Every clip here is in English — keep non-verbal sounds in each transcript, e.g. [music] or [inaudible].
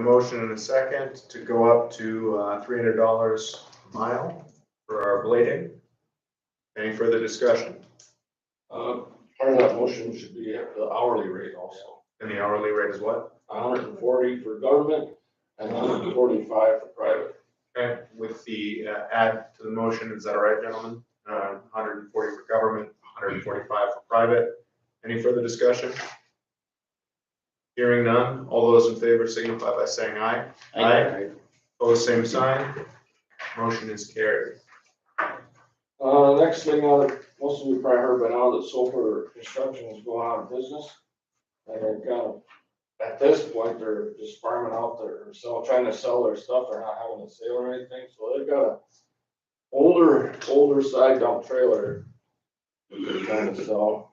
A motion and a second to go up to uh, $300 a mile for our blading. Any further discussion? Uh, Part of that motion should be at the hourly rate also, And the hourly rate is what? hundred and forty for government and hundred and forty-five for private. Okay, with the uh, add to the motion, is that all right, gentlemen? Uh, 140 for government, 145 for private. Any further discussion? Hearing none, all those in favor signify by saying aye. Opposed, same sign. Motion is carried. Uh, next thing, uh, most of you probably heard by now that Sulphur Construction is going out of business. And they're kind of, at this point, they're just farming out their, sell, trying to sell their stuff. They're not having a sale or anything, so they've got a older, older side dump trailer. They're trying to sell,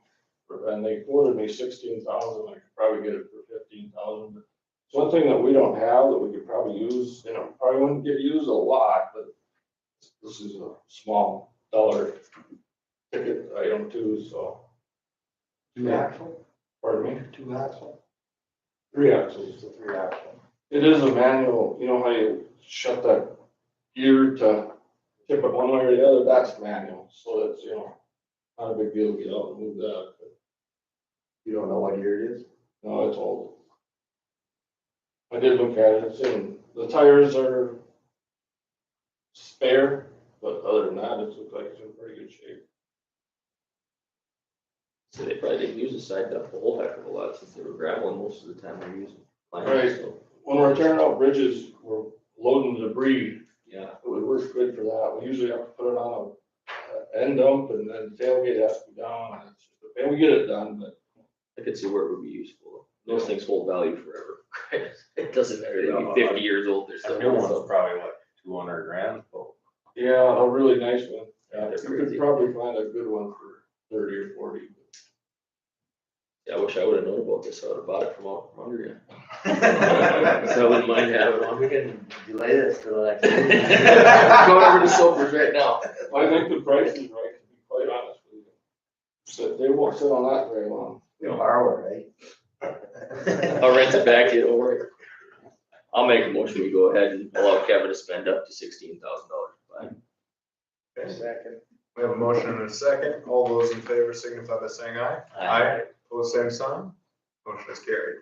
and they quoted me sixteen thousand. I could probably get it for fifteen thousand. It's one thing that we don't have that we could probably use, you know, probably wouldn't get used a lot, but this is a small dollar ticket item too, so. Two axle, Pardon me? two axle, Three axles. the three axle. It is a manual, you know how you shut that gear to tip it one way or the other, that's manual, so it's, you know, not a big deal to get out and move that, but You don't know what year it is? no, it's old. I did look at it, it's in, the tires are spare, but other than that, it looks like it's in pretty good shape. So they probably didn't use the side dump a whole heck of a lot since they were graveling most of the time they're using. lines, Right. so, When we're tearing out bridges, we're loading debris Yeah, It would work good for that. We usually have to put it on a, a end dump and then tailgate has to be down. and it's- And we get it done, but I could see where it would be useful. Those things hold value forever. [laughs] It doesn't matter, they Yeah. be fifty years old, they're That still. new one's probably like two hundred grand, but yeah, a really nice one. Yeah, They're You could crazy. probably find a good one for thirty or forty. Yeah, I wish I would have known about this, I would have bought it from out from under you. [laughs] [laughs] So I wouldn't mind having one. We can delay this till the next. Going over to Silver's right now. I think the price is right, to be quite honest with you. So they won't sit on that very long. We borrow it, right? I'll rent it back to you, don't worry. I'll make a motion, we go ahead and allow Kevin to spend up to sixteen thousand dollars. Second. We have a motion and a second. All those in favor signify by saying aye. Opposed, same sign. Motion is carried.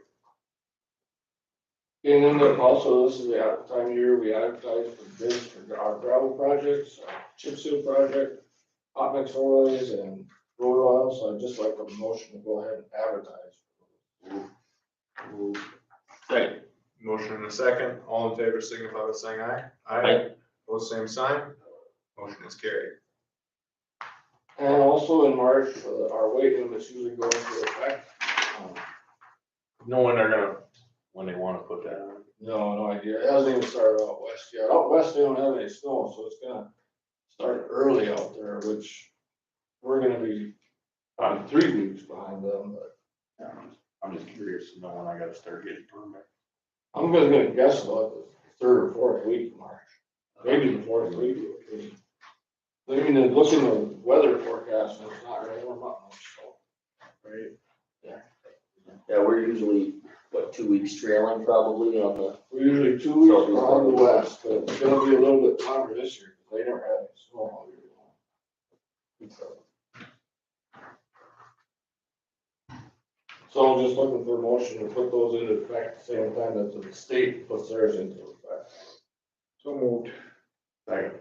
And then there also, this is the ad- time of year we advertise for bids for gra- gravel projects, uh, chip seal project, hot mix oils and road oil, so I'd just like a motion to go ahead and advertise. Second, Motion and a second. All in favor signify by saying aye. Aye. Opposed, same sign. Motion is carried. And also in March, uh, our weight limits usually go into effect. Um, no one are gonna, when they wanna put that on. No, no idea, it hasn't even started out west yet, out west they don't have any snow, so it's gonna start early out there, which we're gonna be, um, three weeks behind them, but I'm just curious to know when I gotta start getting permit. I'm just gonna guess about the third or fourth week of March, maybe the fourth week. I mean, and looking at the weather forecast, it's not gonna warm up much, so. Right. yeah, we're usually, what, two weeks trailing probably on the We're usually two weeks behind the west, but it's gonna be a little bit longer this year, because they don't have any snow all year long. So I'm just looking for a motion to put those into effect, at the same time that the state puts theirs into effect. So moved. Second.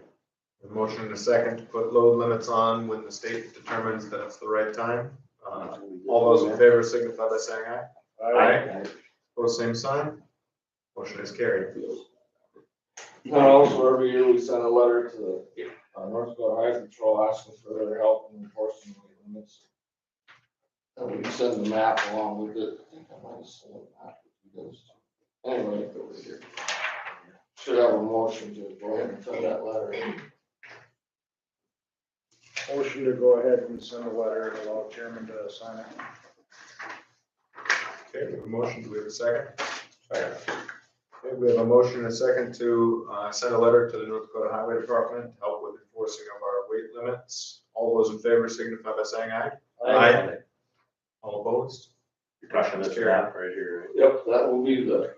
A motion and a second to put load limits on when the state determines that it's the right time. Uh, All those in favor signify by saying aye. Opposed, same sign. Motion is carried. And also every year we send a letter to the uh, North Dakota Highway Patrol asking for their help in enforcing the limits. And we can send the map along with it. I think I might have sent a map with you guys. Anyway, over here. Should have a motion to go ahead and send that letter. Motion to go ahead and send a letter and allow chairman to sign it. Okay, we have a motion, do we have a second? Okay, we have a motion and a second to uh, send a letter to the North Dakota Highway Department to help with enforcing of our weight limits. All those in favor signify by saying aye. Aye. All opposed? You're talking this map right here, Yep, that will be the